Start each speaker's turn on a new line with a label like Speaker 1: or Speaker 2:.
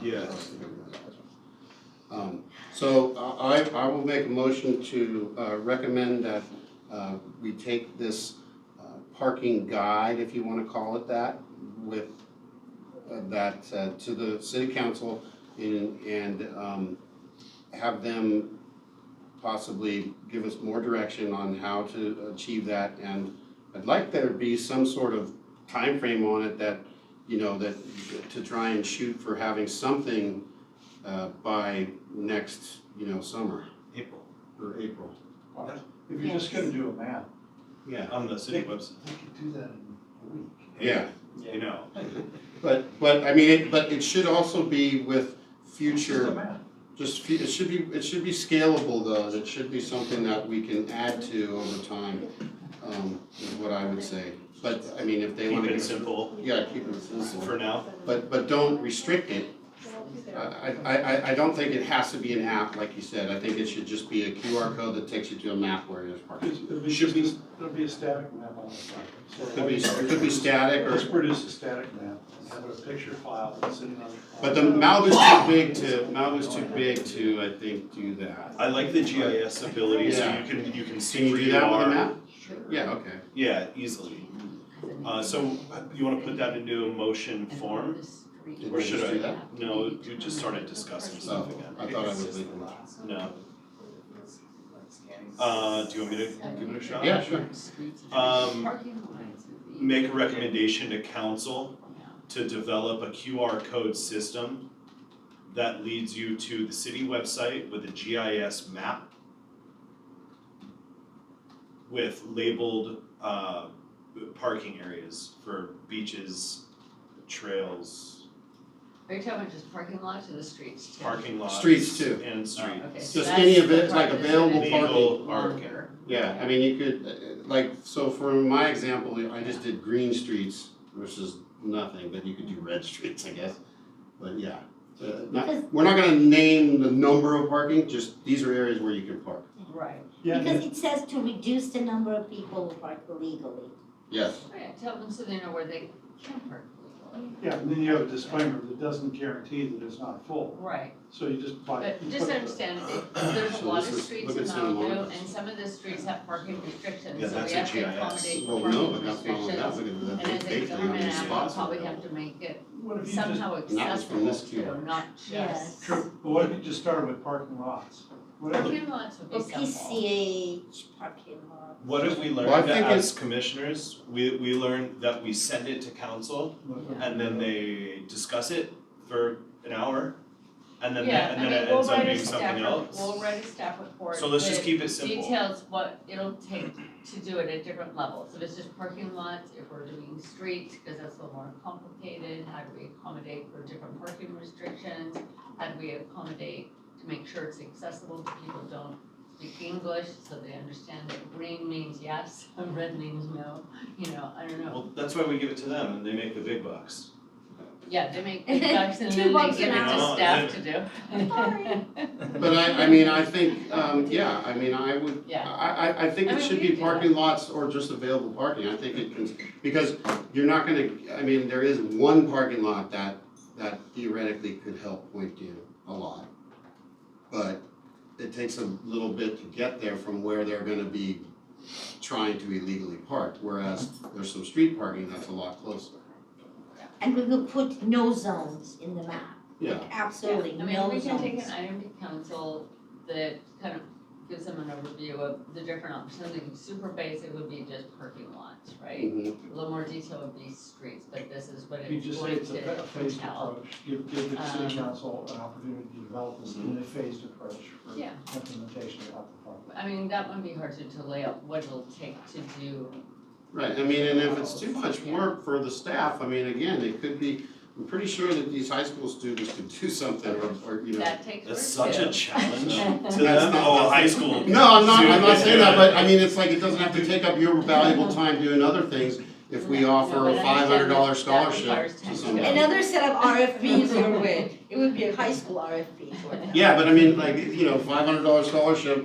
Speaker 1: Yes.
Speaker 2: Um, So I, I- I will make a motion to uh, recommend that uh, we take this uh, parking guide, if you want to call it that, with uh, that uh, to the city council and, and um, have them possibly give us more direction on how to achieve that. And I'd like there to be some sort of time frame on it that, you know, that, to try and shoot for having something uh, by next, you know, summer
Speaker 1: April,
Speaker 2: or April.
Speaker 3: If you're just gonna do a map,
Speaker 2: Yeah.
Speaker 1: on the city website,
Speaker 3: you could do that in a week.
Speaker 2: Yeah,
Speaker 1: you know,
Speaker 2: but, but I mean, it, but it should also be with
Speaker 3: It's just a
Speaker 2: future,
Speaker 3: map.
Speaker 2: just, fu- it should be, it should be scalable though, it should be something that we can add to over time, um, is what I would say. But, I mean, if they
Speaker 1: keep
Speaker 2: wanna.
Speaker 1: it
Speaker 2: give-
Speaker 1: simple
Speaker 2: Yeah, keep it
Speaker 1: for
Speaker 2: simple,
Speaker 1: now.
Speaker 2: but, but don't restrict it, I, I, I, I don't think it has to be an app, like you said, I think it should just be a QR code that takes you to a map where there's parking.
Speaker 3: It's- It'll be
Speaker 1: Should
Speaker 3: just,
Speaker 1: be-
Speaker 3: a- it'll be a static map on the site. So
Speaker 2: Could be,
Speaker 3: what
Speaker 2: it
Speaker 3: you-
Speaker 2: could be static or
Speaker 3: Just produce a static map, and have a picture file that's sitting on.
Speaker 2: But the Malibu's too big to, Malibu's too big to, I think, do that.
Speaker 1: I like the GIS ability, so
Speaker 2: Yeah.
Speaker 1: you can, you can
Speaker 2: Can
Speaker 1: see
Speaker 2: you
Speaker 1: where
Speaker 2: do
Speaker 1: you
Speaker 2: that with a
Speaker 1: are,
Speaker 2: map?
Speaker 3: Sure.
Speaker 2: Yeah, okay.
Speaker 1: yeah, easily. Uh, so you wanna put that into a motion form?
Speaker 2: Did
Speaker 1: Or
Speaker 2: we
Speaker 1: should
Speaker 2: just
Speaker 1: I- Oh,
Speaker 2: do that?
Speaker 1: No, you just started discussing stuff again.
Speaker 2: I thought I would leave it.
Speaker 1: No. Uh, do you want me to give it a shot?
Speaker 2: Yeah, sure.
Speaker 1: Um, make a recommendation to council to develop a QR code system that leads you to the city website with a GIS map with labeled uh parking areas for beaches, trails,
Speaker 4: Are you talking about just parking lots or the streets too?
Speaker 1: parking lots.
Speaker 2: Streets too.
Speaker 1: And streets.
Speaker 4: Okay, so
Speaker 2: Just
Speaker 4: that's
Speaker 2: any
Speaker 4: the
Speaker 2: event,
Speaker 4: part
Speaker 2: like
Speaker 4: that's
Speaker 2: available
Speaker 4: gonna be
Speaker 1: parking.
Speaker 4: longer.
Speaker 2: Yeah, I mean, you could, uh, like, so for my example, I just did green streets versus nothing, but you could do red streets, I guess. But yeah, uh, not, we're not gonna name the number of parking, just these are areas where you can park.
Speaker 4: Right.
Speaker 3: Yeah, and
Speaker 5: Because it says to reduce the number of people who park illegally.
Speaker 2: Yes,
Speaker 4: Right, Oh, tell them so they know where they can park legally.
Speaker 3: then- yeah, and then you have a disclaimer that doesn't guarantee that it's not full,
Speaker 4: Right,
Speaker 3: so you just buy.
Speaker 4: but just understand that there's a
Speaker 2: So
Speaker 4: lot
Speaker 2: this
Speaker 4: of
Speaker 2: is-
Speaker 4: streets
Speaker 2: look
Speaker 4: in
Speaker 2: at San
Speaker 4: Malibu
Speaker 2: Juan.
Speaker 4: and some of the streets have parking restrictions,
Speaker 1: Yeah,
Speaker 4: so we
Speaker 1: that's a
Speaker 4: have to
Speaker 1: GIS.
Speaker 4: accommodate
Speaker 2: well, no, but
Speaker 4: parking
Speaker 2: that's not what
Speaker 4: restrictions.
Speaker 2: happened, because that's
Speaker 4: And as a
Speaker 2: big thing, how
Speaker 4: government
Speaker 2: many
Speaker 4: animal,
Speaker 2: spots are
Speaker 4: probably
Speaker 2: available?
Speaker 4: have to make it
Speaker 3: What if you just,
Speaker 4: somehow
Speaker 2: And that was from
Speaker 4: accessible
Speaker 2: this
Speaker 4: to,
Speaker 2: QR.
Speaker 4: not just.
Speaker 5: Yes.
Speaker 3: true, but what if you just started with parking lots? Whatever,
Speaker 4: Parking lots would
Speaker 5: Or
Speaker 4: be simple.
Speaker 5: PCH parking lot.
Speaker 1: What have we
Speaker 2: Well, I
Speaker 1: learned
Speaker 2: think
Speaker 1: as commissioners? We we learned that we send it to council and then they discuss it for an hour. And then
Speaker 4: Yeah,
Speaker 1: and
Speaker 4: I
Speaker 1: then
Speaker 4: mean,
Speaker 1: it
Speaker 4: we'll
Speaker 1: ends up
Speaker 4: write a
Speaker 1: being
Speaker 4: staff
Speaker 1: something
Speaker 4: rep-
Speaker 1: else.
Speaker 4: We'll write a staff report.
Speaker 1: So let's just
Speaker 4: that
Speaker 1: keep it simple.
Speaker 4: Details what it'll take to do it at different levels, if it's just parking lots, if we're doing streets, because that's a little more complicated, how do we accommodate for different parking restrictions? How do we accommodate to make sure it's accessible, so people don't speak English, so they understand that green means yes, and red means no, you know, I don't know.
Speaker 1: Well, that's why we give it to them and they make the big bucks.
Speaker 4: Yeah, they make big bucks and
Speaker 5: Two
Speaker 4: then they
Speaker 5: bucks
Speaker 4: give it
Speaker 5: an
Speaker 4: to
Speaker 1: hour.
Speaker 4: staff to do.
Speaker 5: Sorry.
Speaker 2: But I, I mean, I think, um, yeah, I mean, I would, I,
Speaker 4: Yeah.
Speaker 2: I, I think
Speaker 4: I
Speaker 2: it
Speaker 4: mean,
Speaker 2: should be
Speaker 4: we do that.
Speaker 2: parking lots or just available parking, I think it can, because you're not gonna, I mean, there is one parking lot that, that theoretically could help Point View a lot. But it takes a little bit to get there from where they're gonna be trying to illegally park, whereas there's some street parking that's a lot closer.
Speaker 5: And we will put no zones in the map,
Speaker 2: Yeah,
Speaker 5: absolutely no zones.
Speaker 4: I mean, we can take an item to council that kind of gives them an overview of the different options, something super basic would be just parking lots, right?
Speaker 2: mhm.
Speaker 4: A little more detail would be streets, but this is what
Speaker 3: you
Speaker 4: it's
Speaker 3: just say
Speaker 4: going
Speaker 3: it's a fa- a
Speaker 4: to
Speaker 3: phased
Speaker 4: tell.
Speaker 3: approach, give, give the city
Speaker 4: Um,
Speaker 3: council an opportunity to develop this in a phased approach for
Speaker 4: Yeah.
Speaker 3: implementation of the park.
Speaker 4: I mean, that would be hard to, to lay out what it'll take to do,
Speaker 2: Right, I mean, and if it's too much work for the staff, I mean, again, it could be, I'm pretty sure that these high school students could do something or, or, you know.
Speaker 4: that takes work
Speaker 1: That's such a
Speaker 4: too.
Speaker 1: challenge
Speaker 4: That's
Speaker 1: to them.
Speaker 2: not-
Speaker 1: Oh, high school.
Speaker 2: No, I'm not, I'm not saying that,
Speaker 1: Yeah.
Speaker 2: but I mean, it's like, it doesn't have to take up your valuable time doing other things if we
Speaker 4: No,
Speaker 2: offer
Speaker 4: but
Speaker 2: a
Speaker 4: I
Speaker 2: five hundred dollar
Speaker 4: understand that
Speaker 2: scholarship
Speaker 4: requires
Speaker 2: to
Speaker 4: time.
Speaker 2: someone.
Speaker 5: Another set of RFPs you would win, it would be a high school RFP, wouldn't it?
Speaker 2: Yeah, but I mean, like, you know, five hundred dollar scholarship